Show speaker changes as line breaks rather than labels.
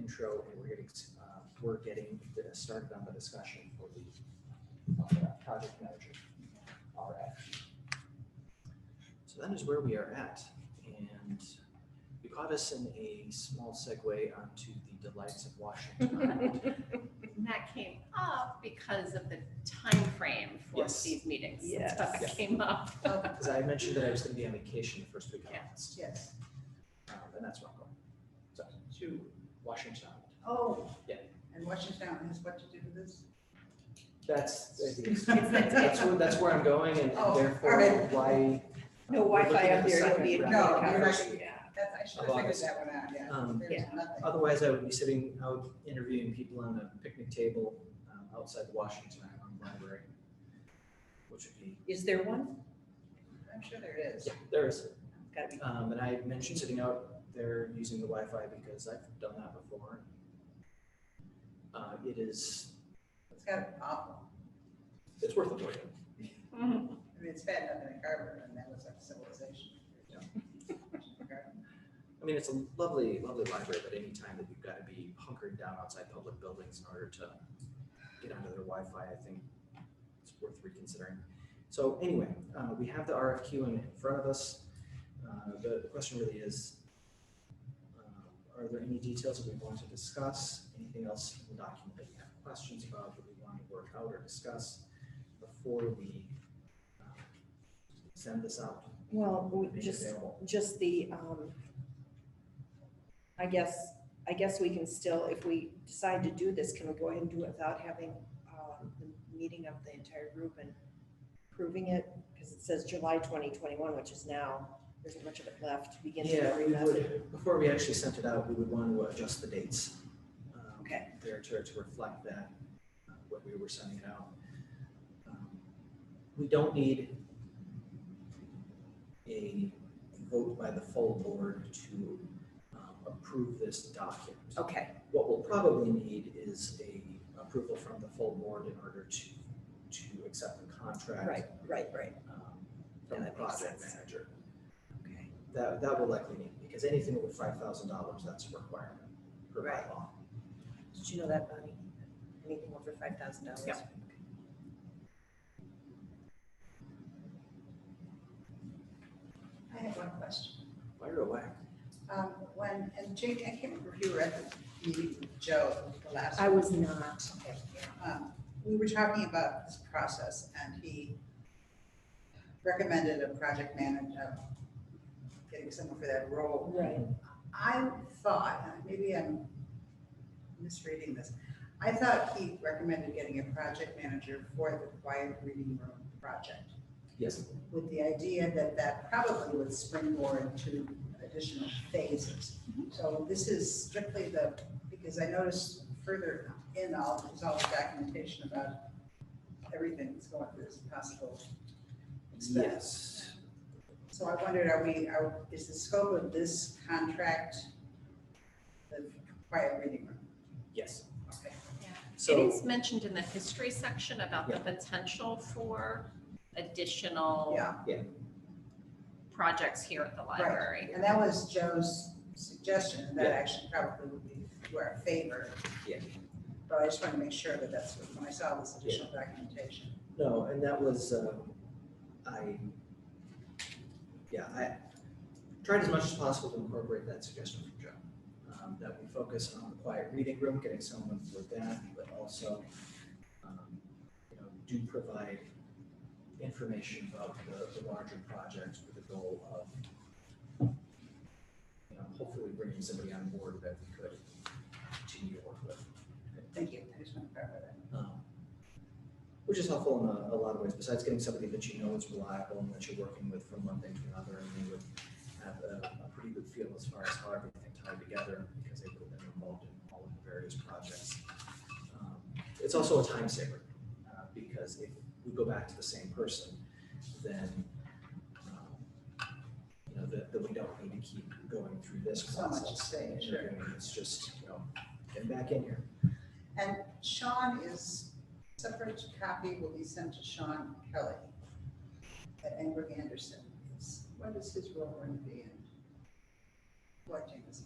intro, and we're getting, uh, we're getting uh, started on the discussion for the uh, project manager RFP. So that is where we are at, and you caught us in a small segue onto the delights of Washington.
And that came up because of the time frame for
Yes.
these meetings.
Yes.
So it came up.
Because I mentioned that I was gonna be on vacation the first week of
Yeah.
August,
Yes.
um, and that's where I'm going. So,
Two.
Washington.
Oh.
Yeah.
And Washington has what to do with this?
That's, I think it's-
It's like-
that's where, that's where I'm going and
Oh,
therefore
alright.
why.
No
we're
Wi-Fi
looking at
up
the
there, it'll
second
be.
round.
No,
of
you're not
conversations.
gonna- That's, I should
Of
have figured
August.
that one out, yeah.
Um,
There's
yeah.
nothing.
Otherwise, I would be sitting out interviewing people on a picnic table um, outside the Washington Island Library, which would be,
Is there one?
I'm sure there is.
yeah, there is.
Gotta be.
Um, and I had mentioned sitting out there using the Wi-Fi because I've done that before. Uh, it is,
It's got an awful,
it's worth avoiding.
I mean, it's bad enough in Carver and that was like civilization.
Yeah. I mean, it's a lovely, lovely library, but any time that you've got to be hunkering down outside public buildings in order to get onto their Wi-Fi, I think it's worth reconsidering. So anyway, uh, we have the RFQ in, in front of us. Uh, the question really is, uh, are there any details that we want to discuss? Anything else in the document that you have questions about that we want to work out or discuss before we uh, send this out?
Well, we
make it
just,
available?
just the, um, I guess, I guess we can still, if we decide to do this, can we go ahead and do it without having, um, the meeting of the entire group and proving it? Because it says July twenty twenty-one, which is now, there isn't much of it left to begin to
Yeah, we
remember.
would, before we actually sent it out, we would want to adjust the dates. um,
Okay.
There to, to reflect that, uh, what we were sending it out. Um, We don't need a vote by the full board to um, approve this document.
Okay,
What we'll probably need is a approval from the full board in order to, to accept the contract.
right, right, right,
um, From
Yeah,
the
that makes
project
sense.
manager.
okay.
That, that will likely need, because anything over five thousand dollars, that's a requirement per by
Right.
law.
Did you know that, Bonnie? Anything over five thousand dollars?
Yeah.
I have one question.
Fire away.
Um, when, and Jake, I can't remember if you were at the meeting with Joe the last.
I was not.
Okay, um, We were talking about this process and he recommended a project manager, getting someone for that role.
Right.
I thought, and maybe I'm misreading this, I thought he recommended getting a project manager for the quiet reading room project
Yes,
with the idea that that probably would springboard to additional phases. So this is strictly the, because I noticed further in all, there's all the documentation about everything that's going through this possible expense.
yes.
So I wondered, are we, are, is the scope of this contract the quiet reading room?
Yes.
Okay.
It
So,
is mentioned in the history section about the potential for additional
Yeah,
projects here at the library.
and that was Joe's suggestion, and that actually probably would be to our favor.
Yeah.
But I just want to make sure that that's, what- when I saw this additional documentation.
no, and that was, um, I, yeah, I tried as much as possible to incorporate that suggestion from Joe. um, That we focus on the quiet reading room, getting someone for that, but also, um, you know, do provide information about the, the larger projects with the goal of, you know, hopefully bringing somebody on board that we could continue to work with.
Thank you, I just want to clarify that.
um, Which is helpful in a, a lot of ways, besides getting somebody that you know is reliable and that you're working with from one thing to another, and they would have a, a pretty good feel as far as how everything tied together, because they would have been involved in all of the various projects. Um, It's also a time saver, uh, because if we go back to the same person, then, um, you know, that, that we don't need to keep going through this
So much
process.
to say,
and
sure.
interviewing. It's just, you know, getting back in here.
And Sean is, separate copy will be sent to Sean Kelly at Engrick Anderson. It's- What is his role going to be in collecting this